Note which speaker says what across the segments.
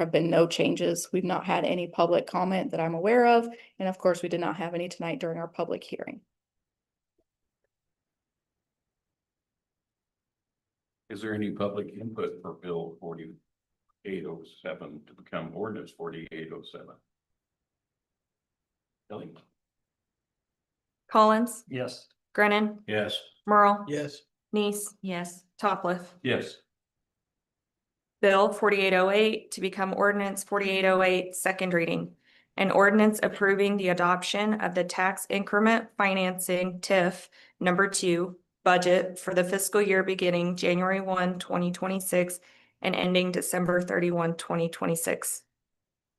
Speaker 1: have been no changes. We've not had any public comment that I'm aware of. And of course, we did not have any tonight during our public hearing.
Speaker 2: Is there any public input for Bill forty-eight oh seven to become ordinance forty-eight oh seven? Kelly?
Speaker 3: Collins,
Speaker 4: Yes.
Speaker 3: Grennan,
Speaker 2: Yes.
Speaker 3: Merle,
Speaker 4: Yes.
Speaker 3: Nice. Yes. Topliff.
Speaker 2: Yes.
Speaker 3: Bill forty-eight oh eight to become ordinance forty-eight oh eight, second reading. An ordinance approving the adoption of the tax increment financing TIF number two budget for the fiscal year beginning January 1, 2026, and ending December 31, 2026.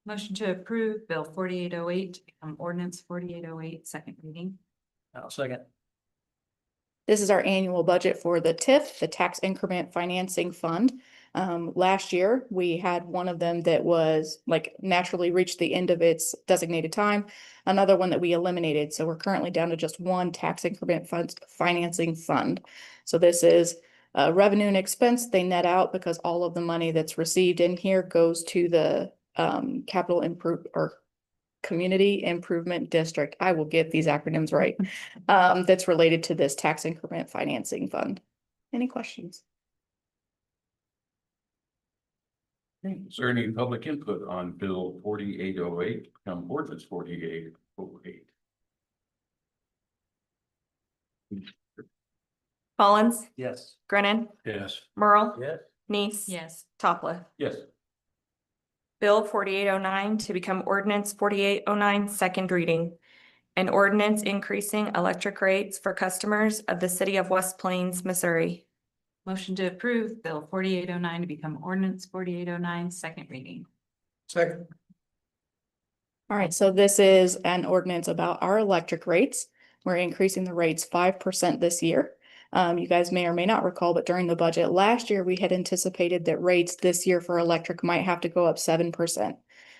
Speaker 5: Motion to approve Bill forty-eight oh eight, um, ordinance forty-eight oh eight, second reading.
Speaker 4: I'll second.
Speaker 1: This is our annual budget for the TIF, the Tax Increment Financing Fund. Um, last year, we had one of them that was like naturally reached the end of its designated time. Another one that we eliminated, so we're currently down to just one tax increment funds, financing fund. So this is uh, revenue and expense, they net out because all of the money that's received in here goes to the um, capital improve or community improvement district. I will get these acronyms right um, that's related to this tax increment financing fund. Any questions?
Speaker 2: Is there any public input on Bill forty-eight oh eight to become ordinance forty-eight oh eight?
Speaker 3: Collins,
Speaker 4: Yes.
Speaker 3: Grennan,
Speaker 2: Yes.
Speaker 3: Merle,
Speaker 4: Yes.
Speaker 3: Nice.
Speaker 5: Yes.
Speaker 3: Topliff.
Speaker 2: Yes.
Speaker 3: Bill forty-eight oh nine to become ordinance forty-eight oh nine, second reading. An ordinance increasing electric rates for customers of the city of West Plains, Missouri.
Speaker 5: Motion to approve Bill forty-eight oh nine to become ordinance forty-eight oh nine, second reading.
Speaker 4: Second.
Speaker 1: All right, so this is an ordinance about our electric rates. We're increasing the rates five percent this year. Um, you guys may or may not recall, but during the budget last year, we had anticipated that rates this year for electric might have to go up seven percent.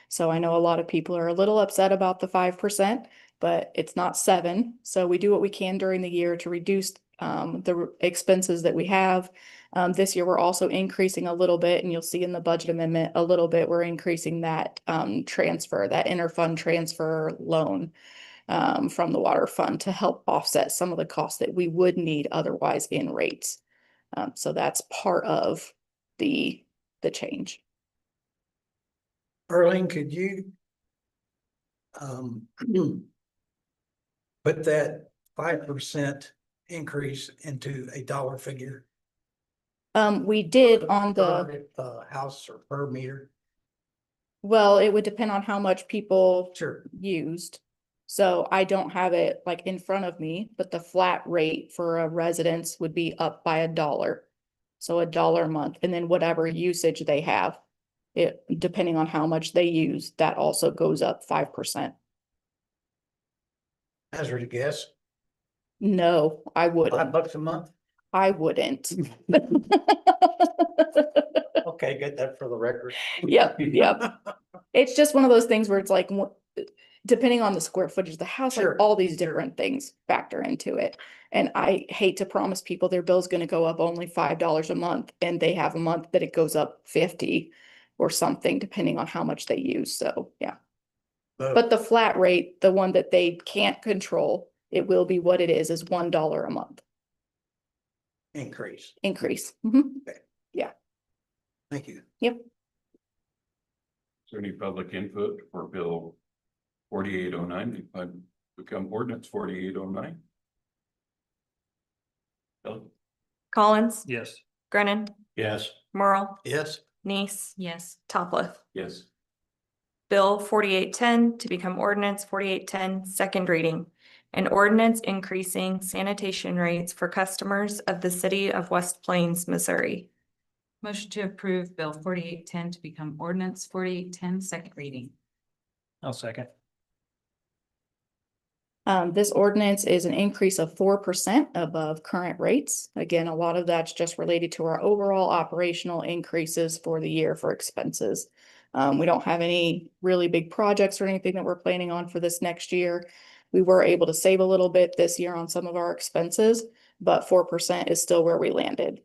Speaker 1: So I know a lot of people are a little upset about the five percent, but it's not seven. So we do what we can during the year to reduce um, the r- expenses that we have. Um, this year, we're also increasing a little bit, and you'll see in the budget amendment, a little bit, we're increasing that, um, transfer, that interfund transfer loan um, from the water fund to help offset some of the costs that we would need otherwise in rates. Um, so that's part of the, the change.
Speaker 6: Erling, could you um, put that five percent increase into a dollar figure?
Speaker 1: Um, we did on the.
Speaker 6: per, Uh, house or per meter?
Speaker 1: Well, it would depend on how much people
Speaker 6: Sure.
Speaker 1: used. So I don't have it like in front of me, but the flat rate for a residence would be up by a dollar. So a dollar a month and then whatever usage they have. It, depending on how much they use, that also goes up five percent.
Speaker 6: Hazard a guess,
Speaker 1: No, I
Speaker 6: five
Speaker 1: wouldn't.
Speaker 6: bucks a month?
Speaker 1: I wouldn't.
Speaker 6: Okay, get that for the record.
Speaker 1: Yep, yep. It's just one of those things where it's like, wha- depending on the square footage of the house, like
Speaker 6: Sure,
Speaker 1: all these
Speaker 6: sure.
Speaker 1: different things factor into it. And I hate to promise people their bill's gonna go up only five dollars a month and they have a month that it goes up fifty or something, depending on how much they use. So, yeah.
Speaker 6: Oh.
Speaker 1: But the flat rate, the one that they can't control, it will be what it is, is one dollar a month
Speaker 6: Increase,
Speaker 1: increase. Mhm.
Speaker 6: thank you.
Speaker 2: Is there any public input for Bill forty-eight oh nine to become ordinance forty-eight oh nine? Kelly?
Speaker 3: Collins,
Speaker 4: Yes.
Speaker 3: Grennan,
Speaker 2: Yes.
Speaker 3: Merle,
Speaker 6: Yes,
Speaker 3: Nice,
Speaker 5: Yes.
Speaker 3: Topliff.
Speaker 2: Yes.
Speaker 3: Bill forty-eight ten to become ordinance forty-eight ten, second reading. An ordinance increasing sanitation rates for customers of the city of West Plains, Missouri.
Speaker 5: Motion to approve Bill forty-eight ten to become ordinance forty-eight ten, second reading.
Speaker 4: I'll second.
Speaker 1: Um, this ordinance is an increase of four percent above current rates. Again, a lot of that's just related to our overall operational increases for the year for expenses. Um, we don't have any really big projects or anything that we're planning on for this next year. We were able to save a little bit this year on some of our expenses, but four percent is still where we landed.